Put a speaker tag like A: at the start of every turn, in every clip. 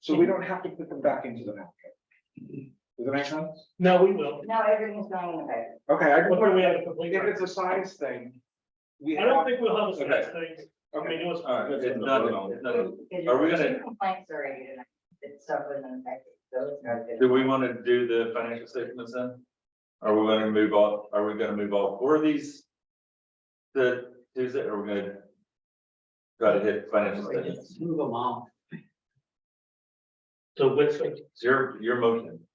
A: So we don't have to put them back into the map. Does that make sense?
B: No, we will.
C: No, everything's going in the budget.
A: Okay, I just
B: Before we
A: want-
B: have a complete.
A: if it's a size thing. We
B: I
A: have.
B: don't think we'll have a
D: Okay.
B: size thing. I mean,
A: Okay,
B: it was.
D: All right, it's nothing, nothing.
C: Because
D: Are we
C: there's
D: gonna-
C: two Complaints already tonight, that stuff wasn't affected, so it's not
D: Do
C: good.
D: we want to do the financial statements then? Are we going to move off, are we going to move off for these? The Tuesday, or we going to? Try to hit financial statements,
E: Move them all.
B: So what's,
D: it's your, your motion.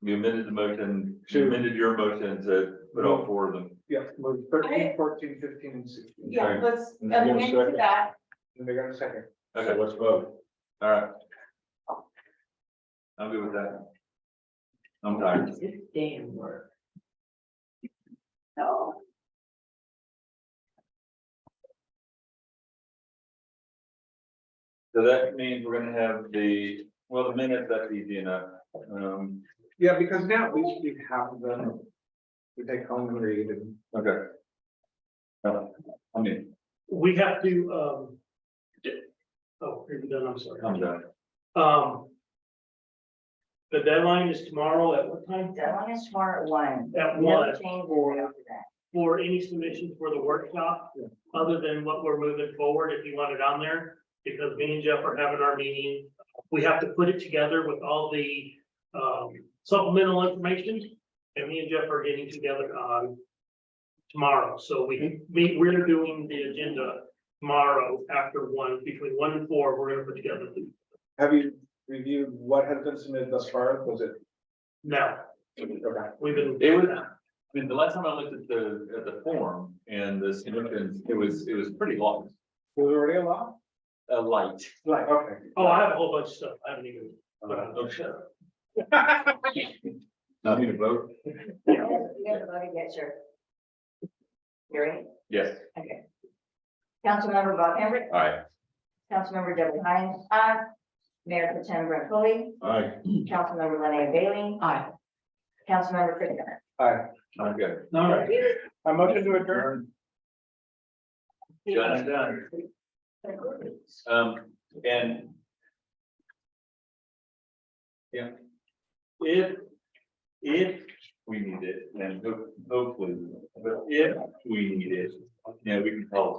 D: You amended the motion, you
A: To-
D: amended your motion to put all four of them.
A: yeah, move thirteen, fourteen, fifteen, and sixteen.
D: Yeah,
C: let's
D: And then amend to second.
C: that.
A: And they got a second.
D: Okay, let's vote. All right. I'm good with that. I'm tired.
E: It's damn work.
C: No.
D: So that means we're gonna have the, well, the minutes, that's easy enough. Um,
A: Yeah, because now we should have them. We take home and read and.
D: okay. Uh, I mean,
B: we have to, um. d- Oh, here we go, I'm sorry.
D: I'm done.
B: Um. The deadline is tomorrow at what time?
C: Deadline is tomorrow at one.
B: At
C: No
B: one.
C: Changes after that.
B: For any submission for the workshop,
A: Yeah.
B: other than what we're moving forward, if you want it on there. Because me and Jeff are having our meeting, we have to put it together with all the, um, supplemental information. And me and Jeff are getting together on tomorrow, so we, we, we're doing the agenda tomorrow after one, between one and four, we're gonna put together the
A: Have you reviewed what has been submitted thus far? Was it?
B: Now,
A: Okay.
B: we've been.
D: It was- I mean, the last time I looked at the, at the form and the submissions, it was, it was pretty long,
A: Was it already a law?
D: uh, light.
A: Like, okay.
B: Oh, I have a whole bunch of stuff. I haven't even. but I-
D: Okay. Not need a vote?
C: You guys voted yes, sure. Hearing,
D: Yes,
C: okay. Councilmember Bob Hambrick,
D: all right.
C: Councilmember Deborah Hines, aye. Mayor Potem Brett Foley,
D: All right.
C: Councilmember Lenny Bailey,
E: Aye.
C: Councilmember Chris Evans.
A: Hi,
D: I'm good.
B: All right.
A: I motion to adjourn.
D: Done and done. Um, and. Yeah. If, if we need it, and ho- hopefully, we will, but if we need it, yeah, we can call